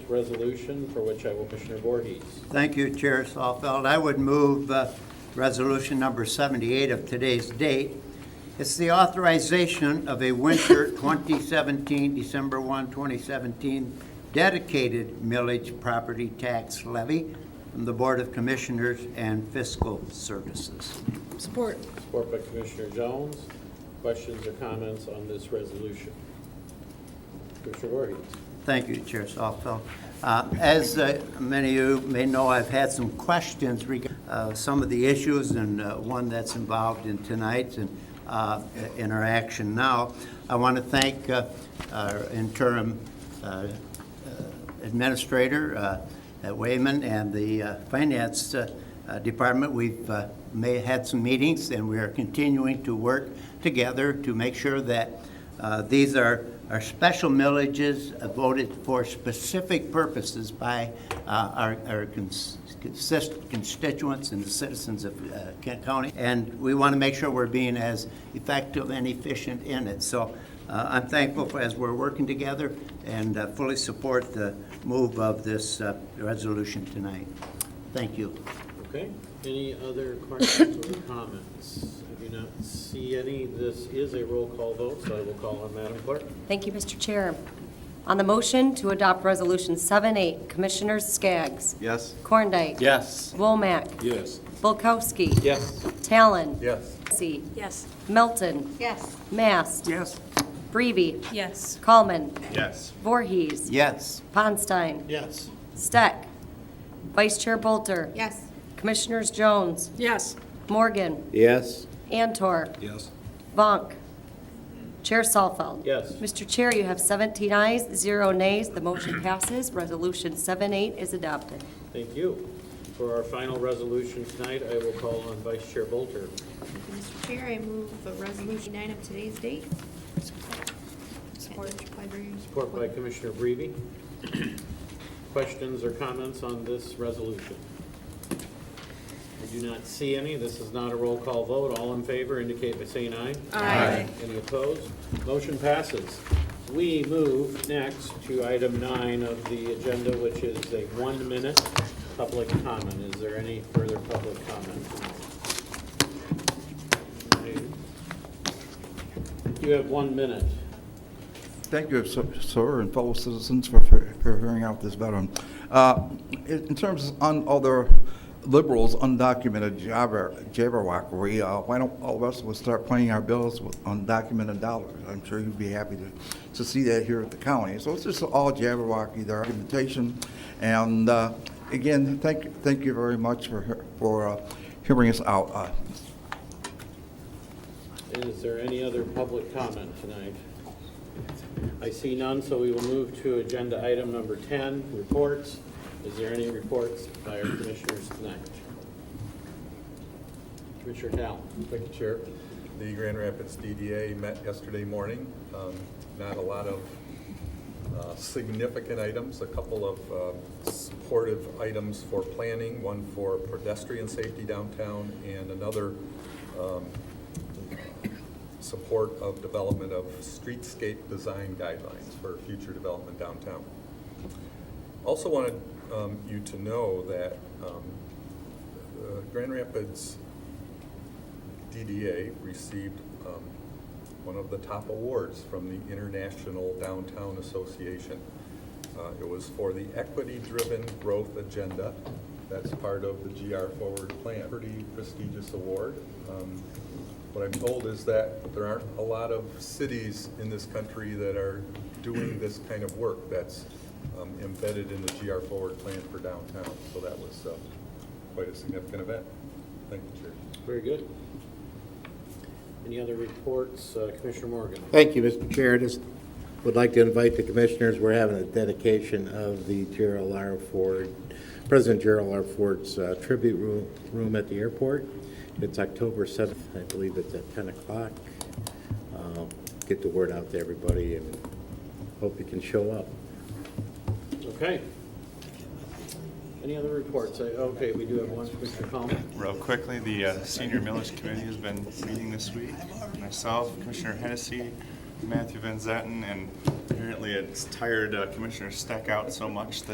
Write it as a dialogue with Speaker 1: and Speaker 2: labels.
Speaker 1: resolution, for which I will Commissioner Voorhees.
Speaker 2: Thank you, Chair Saulfeld. I would move uh, Resolution Number 78 of today's date. It's the authorization of a winter 2017, December 1, 2017, dedicated millage property tax levy from the Board of Commissioners and Fiscal Services.
Speaker 3: Support.
Speaker 1: Support by Commissioner Jones. Questions or comments on this resolution? Commissioner Voorhees.
Speaker 2: Thank you, Chair Softfeld. Uh, As uh, many of you may know, I've had some questions regarding some of the issues and uh, one that's involved in tonight and uh, in our action now. I want to thank uh, our interim uh, administrator uh, at Wayman and the uh, finance uh, uh, department. We've uh, may, had some meetings, and we are continuing to work together to make sure that uh, these are, are special millages voted for specific purposes by uh, our, our cons- consist- constituents and the citizens of uh, Kent County. And we want to make sure we're being as effective and efficient in it. So uh, I'm thankful for, as we're working together, and uh, fully support the move of this uh, resolution tonight. Thank you.
Speaker 1: Okay, any other questions or comments? I do not see any. This is a roll call vote, so I will call on Madam Clerk.
Speaker 4: Thank you, Mr. Chair. On the motion to adopt Resolution 7-8, Commissioners Skaggs.
Speaker 5: Yes.
Speaker 4: Korndike.
Speaker 5: Yes.
Speaker 4: Womack.
Speaker 5: Yes.
Speaker 4: Bulkowski.
Speaker 1: Yes.
Speaker 4: Talon.
Speaker 5: Yes.
Speaker 4: Massey.
Speaker 3: Yes.
Speaker 4: Melton.
Speaker 3: Yes.
Speaker 4: Mast.
Speaker 5: Yes.
Speaker 4: Breeby.
Speaker 3: Yes.
Speaker 4: Coleman.
Speaker 5: Yes.
Speaker 4: Voorhees.
Speaker 2: Yes,
Speaker 4: Ponstein.
Speaker 1: Yes.
Speaker 4: Steck. Vice Chair Bolter.
Speaker 3: Yes.
Speaker 4: Commissioners Jones.
Speaker 3: Yes.
Speaker 4: Morgan.
Speaker 5: Yes.
Speaker 4: Antor.
Speaker 5: Yes.
Speaker 4: Vonk. Chair Salfeld.
Speaker 1: Yes.
Speaker 4: Mr. Chair, you have 17 ayes, zero nays. The motion passes. Resolution 7-8 is adopted.
Speaker 1: Thank you. For our final resolution tonight, I will call on Vice Chair Bolter.
Speaker 6: Mr. Chair, I move the resolution nine of today's date. Support.
Speaker 1: Support by Commissioner Breve. Questions or comments on this resolution? I do not see any. This is not a roll call vote. All in favor indicate by saying aye.
Speaker 3: Aye.
Speaker 1: Any opposed? Motion passes. We move next to item nine of the agenda, which is a one-minute public comment. Is there any further public comment? You have one minute.
Speaker 7: Thank you, sir- sir, and fellow citizens for for- for hearing out this veteran. Uh, In in terms of un- other liberals, undocumented jabber- jabberwockery, uh, why don't all of us would start paying our bills with undocumented dollars? I'm sure you'd be happy to to see that here at the county. So it's just all jabberwocky, their argumentation. And uh, again, thank thank you very much for he- for uh, hearing us out. Uh,
Speaker 1: Is there any other public comment tonight? I see none, so we will move to agenda item number 10, reports. Is there any reports by our commissioners tonight? Commissioner Dow.
Speaker 8: Thank you, Chair. The Grand Rapids DDA met yesterday morning. Um, Not a lot of uh, significant items, a couple of um, supportive items for planning, one for pedestrian safety downtown, and another um, support of development of streetscape design guidelines for future development downtown. Also wanted um, you to know that um, the Grand Rapids DDA received um, one of the top awards from the International Downtown Association. Uh, It was for the equity-driven growth agenda. That's part of the GR Forward Plan. Pretty prestigious award. Um, What I'm told is that there aren't a lot of cities in this country that are doing this kind of work that's um, embedded in the GR Forward Plan for downtown. So that was uh, quite a significant event. Thank you, Chair.
Speaker 1: Very good. Any other reports? Uh, Commissioner Morgan.
Speaker 9: Thank you, Mr. Chair. Just would like to invite the commissioners, we're having a dedication of the Gerald R. Ford, President Gerald R. Ford's uh, tribute room- room at the airport. It's October 7th, I believe it's at 10 o'clock. Uh, Get the word out to everybody and hope you can show up.
Speaker 1: Okay. Any other reports? I- Okay, we do have one, Commissioner Coleman.
Speaker 10: Real quickly, the uh, Senior Millage Committee has been meeting this week. Myself, Commissioner Hennessy, Matthew Van Zetten, and apparently it's tired uh, Commissioner Steck out so much that